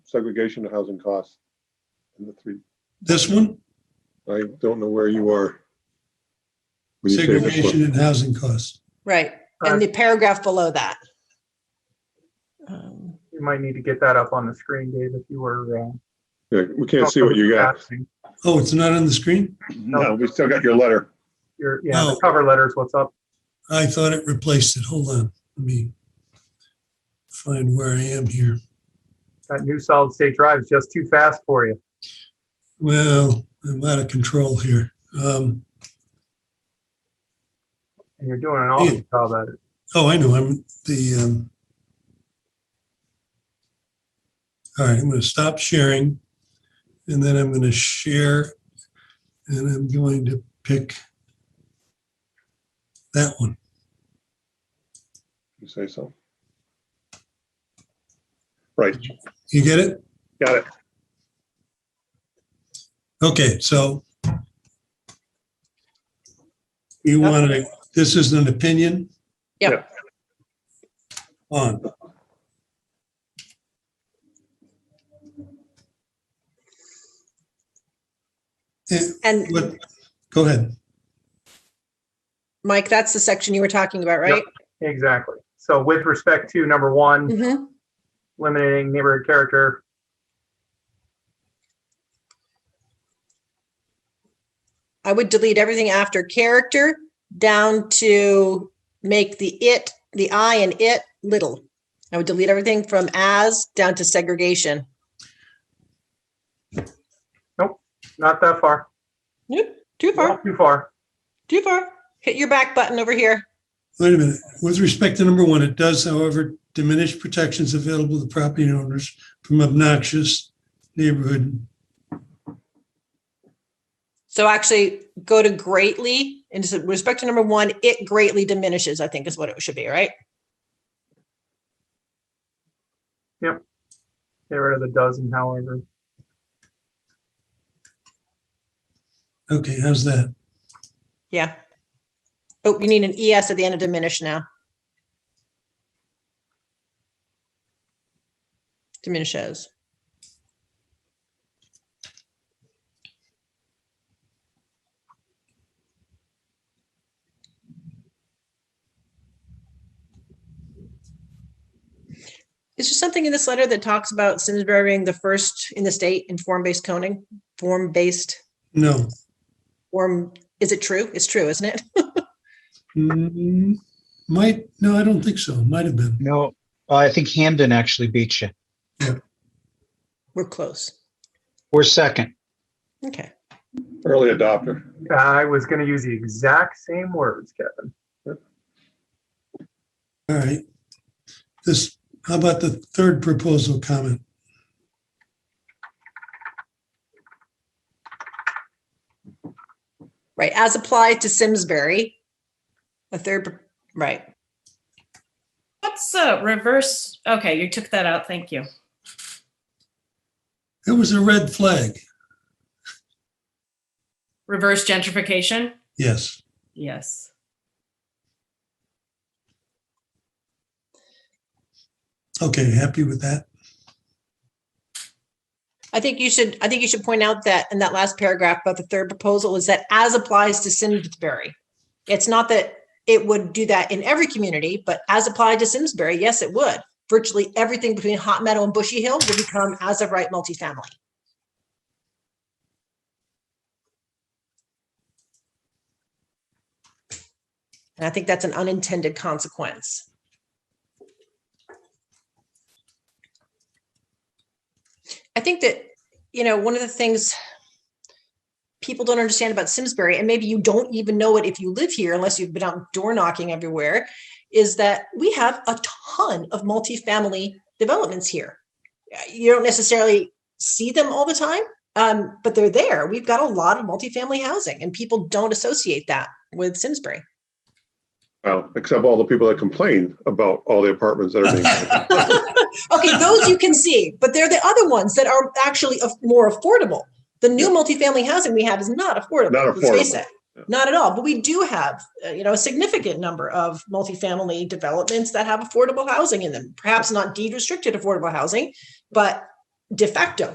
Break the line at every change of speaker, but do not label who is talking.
segregation of housing costs. And the three,
This one,
I don't know where you are. When you say this one.
segregation and housing costs.
Right, and the paragraph below that. Um,
You might need to get that up on the screen, Dave, if you were. uh,
Yeah, we can't see what you got.
Oh, it's not on the screen?
No, we still got your letter.
Your, yeah, the
No.
cover letters, what's up?
I thought it replaced it. Hold on. Let me find where I am here.
That new solid state drive is just too fast for you.
Well, I'm out of control here. Um,
And you're doing an awesome job at it.
oh, I know. I'm the. Um, all right, I'm going to stop sharing and then I'm going to share and I'm going to pick that one.
You say so. Right,
You get it?
got it.
Okay, so you
Yep.
want to, this is an opinion?
Yep.
On. Eh,
And
what- Go ahead.
Mike, that's the section you were talking about, right?
Exactly. So with respect to number one,
Mhm.
eliminating neighborhood character.
I would delete everything after character down to make the it, the I and it little. I would delete everything from as down to segregation.
Not that far.
Yep, too far,
Not Too far.
too far. Hit your back button over here.
Wait a minute. With respect to number one, it does, however, diminish protections available to property owners from obnoxious neighborhood.
So actually go to greatly and just with respect to number one, it greatly diminishes, I think is what it should be, right?
Get rid of the dozen, however.
Okay, how's that?
Yeah. Oh, you need an ES at the end of diminish now. Diminishes. Is there something in this letter that talks about Simsbury being the first in the state in form-based coning, form-based,
No.
form, is it true? It's true, isn't it?
Mm, Might, no, I don't think so. Might have been.
No, I think Hamden actually beat you.
We're close.
We're second.
Okay.
Early adopter.
I was going to use the exact same words, Kevin.
All right. This, how about the third proposal comment?
Right. As applied to Simsbury. A third, right.
What's uh reverse? Okay, you took that out. Thank you.
It was a red flag.
Reverse gentrification?
Yes.
Yes.
Okay, happy with that?
I think you should, I think you should point out that in that last paragraph about the third proposal is that as applies to Simsbury. It's not that it would do that in every community, but as applied to Simsbury, yes, it would. Virtually everything between Hot Meadow and Bushy Hill would become as of right multifamily. And I think that's an unintended consequence. I think that, you know, one of the things people don't understand about Simsbury, and maybe you don't even know it if you live here unless you've been out door knocking everywhere, is that we have a ton of multifamily developments here. Uh, You don't necessarily see them all the time, um, but they're there. We've got a lot of multifamily housing, and people don't associate that with Simsbury.
Well, except all the people that complain about all the apartments that are being. built.
Okay, those you can see, but they're the other ones that are actually af- more affordable. The new multifamily housing we have is not affordable.
Not
let's face
affordable.
it.
Yeah.
Not at all, but we do have, uh, you know, a significant number of multifamily developments that have affordable housing in them. Perhaps not deed restricted affordable housing, but de facto